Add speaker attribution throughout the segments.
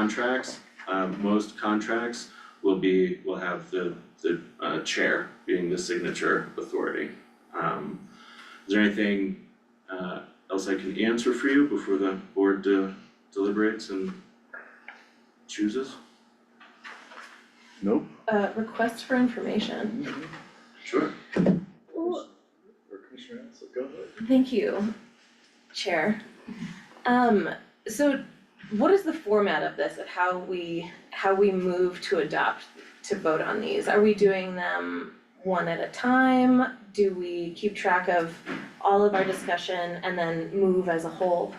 Speaker 1: contracts, um most contracts will be, will have the the uh chair being the signature authority. Um is there anything uh else I can answer for you before the board de- deliberates and chooses?
Speaker 2: Nope.
Speaker 3: Uh, request for information.
Speaker 1: Sure.
Speaker 3: Well,
Speaker 2: Or Commissioner Ansel, go ahead.
Speaker 3: thank you, Chair. Um, so what is the format of this, of how we, how we move to adopt, to vote on these? Are we doing them one at a time? Do we keep track of all of our discussion and then move as a whole?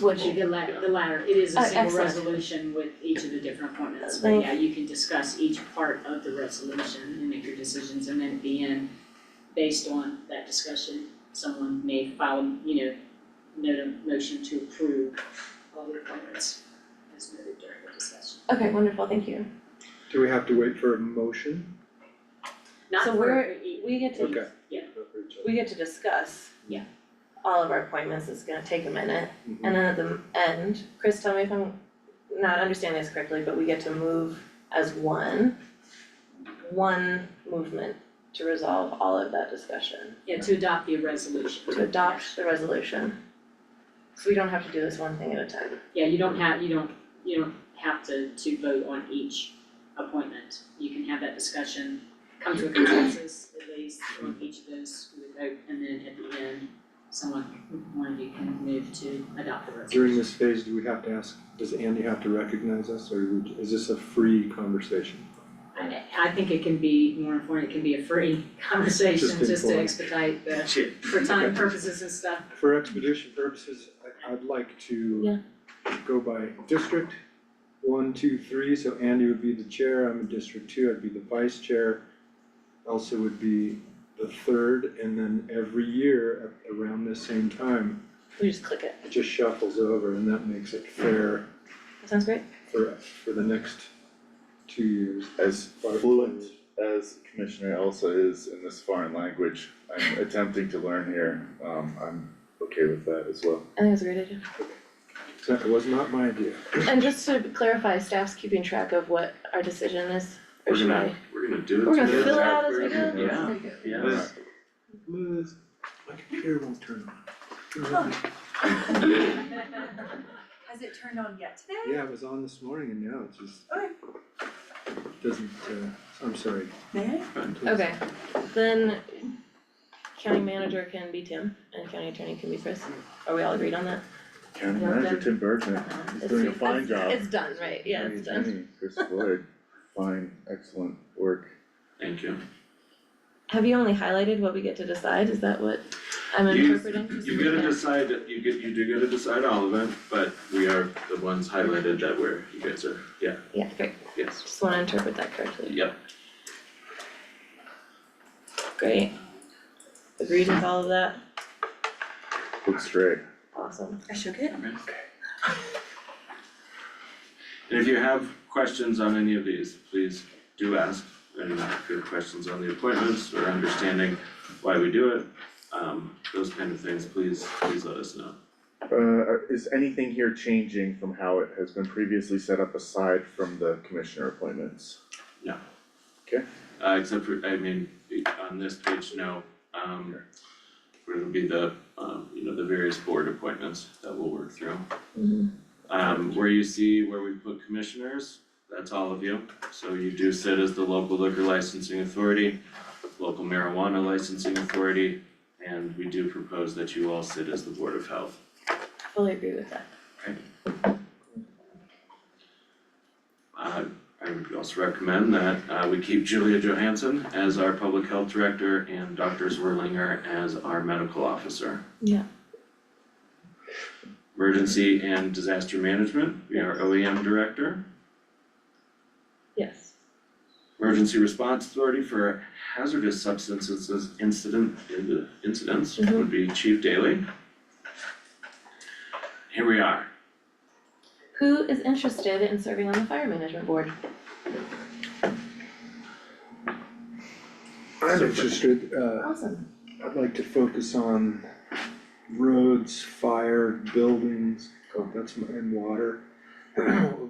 Speaker 4: What you, the la- the latter, it is
Speaker 3: Oh,
Speaker 4: a single
Speaker 3: excellent.
Speaker 4: resolution with each of the different appointments, but
Speaker 3: Thank
Speaker 4: yeah, you can discuss each part of the resolution and make your decisions, and then at the end, based on that discussion, someone may file, you know, note a motion to approve all the appointments as noted during the discussion.
Speaker 3: Okay, wonderful, thank you.
Speaker 5: Do we have to wait for a motion?
Speaker 4: Not
Speaker 3: So
Speaker 4: for
Speaker 3: we're-
Speaker 4: e-
Speaker 3: We get to,
Speaker 5: Okay.
Speaker 4: Yeah.
Speaker 3: we get to discuss.
Speaker 4: Yeah.
Speaker 3: All of our appointments, it's gonna take a minute.
Speaker 5: Mhm.
Speaker 3: And then at the end, Chris, tell me if I'm not understanding this correctly, but we get to move as one. One movement to resolve all of that discussion,
Speaker 4: Yeah, to adopt the resolution.
Speaker 3: to adopt the resolution. So we don't have to do this one thing at a time.
Speaker 4: Yeah, you don't have, you don't, you don't have to to vote on each appointment. You can have that discussion, come to a consensus at least on each of those with vote, and then at the end, someone, one of you can move to adopt the resolution.
Speaker 5: During this phase, do we have to ask, does Andy have to recognize us, or we- is this a free conversation?
Speaker 4: I I think it can be more informed, it can be a free conversation
Speaker 5: Just
Speaker 4: just to
Speaker 5: informed.
Speaker 4: expedite the,
Speaker 1: Chair.
Speaker 4: for time purposes and stuff.
Speaker 5: For expedition purposes, I, I'd like to go by district, one, two, three, so Andy would be the chair, I'm in District Two, I'd be the vice chair. Elsa would be the third, and then every year at around this same time,
Speaker 3: We just click it.
Speaker 5: it just shuffles over, and that makes it fair
Speaker 3: That sounds great.
Speaker 5: for, for the next two years.
Speaker 2: As fluent as Commissioner Elsa is in this foreign language, I'm attempting to learn here, um, I'm okay with that as well.
Speaker 3: I think it's a great idea.
Speaker 5: That was not my idea.
Speaker 3: And just to clarify, staff's keeping track of what our decision is, or
Speaker 1: We're
Speaker 3: should I?
Speaker 1: gonna, we're gonna do it
Speaker 3: We're gonna
Speaker 1: together.
Speaker 3: fill it out as we
Speaker 2: We're
Speaker 3: go?
Speaker 2: gonna-
Speaker 1: Yeah. Yeah.
Speaker 5: Liz, Liz, my computer won't turn on.
Speaker 6: Has it turned on yet today?
Speaker 5: Yeah, it was on this morning and now it's just.
Speaker 6: Okay.
Speaker 5: Doesn't, uh, I'm sorry.
Speaker 6: May I?
Speaker 5: please.
Speaker 3: Okay, then county manager can be Tim and county attorney can be Chris. Are we all agreed on that?
Speaker 2: County
Speaker 4: Well
Speaker 2: Manager
Speaker 4: done.
Speaker 2: Tim Bergman is Uh-huh. doing a fine job.
Speaker 3: It's done, right, yeah, it's done.
Speaker 2: County Attorney Chris Floyd, fine, excellent work.
Speaker 1: Thank you.
Speaker 3: Have you only highlighted what we get to decide? Is that what I'm
Speaker 1: You-
Speaker 3: interpreting?
Speaker 1: You gotta decide, you get, you do gotta decide all of it, but we are the ones highlighted that we're, you guys are, yeah,
Speaker 3: Yeah, great.
Speaker 1: yes,
Speaker 3: Just wanna interpret that correctly.
Speaker 1: yep.
Speaker 3: Great. Agreed with all of that?
Speaker 2: Looks straight.
Speaker 3: Awesome.
Speaker 6: I shook it.
Speaker 1: And if you have questions on any of these, please do ask, and if you have questions on the appointments or understanding why we do it, um, those kind of things, please, please let us know.
Speaker 2: Uh, is anything here changing from how it has been previously set up aside from the commissioner appointments?
Speaker 1: Uh, except for, I mean, on this page, no, um, where it'll be the, um, you know, the various board appointments that we'll work through.
Speaker 3: Mhm.
Speaker 1: Um, where you see where we put commissioners, that's all of you, so you do sit as the local liquor licensing authority, local marijuana licensing authority, and we do propose that you all sit as the board of health.
Speaker 3: Fully agree with that.
Speaker 1: Uh, I would also recommend that, uh, we keep Julia Johansson as our public health director and Dr. Zwirlinger as our medical officer.
Speaker 3: Yeah.
Speaker 1: Emergency and disaster management, we are OEM director.
Speaker 3: Yes.
Speaker 1: Emergency Response Authority for Hazardous Substances Incident, in- incidents would be Chief Daly. Here we are,
Speaker 3: Who is interested in serving on the fire management board?
Speaker 5: I'm interested, uh,
Speaker 3: Awesome.
Speaker 5: I'd like to focus on Oh, roads, fire, buildings, that's my, and water. What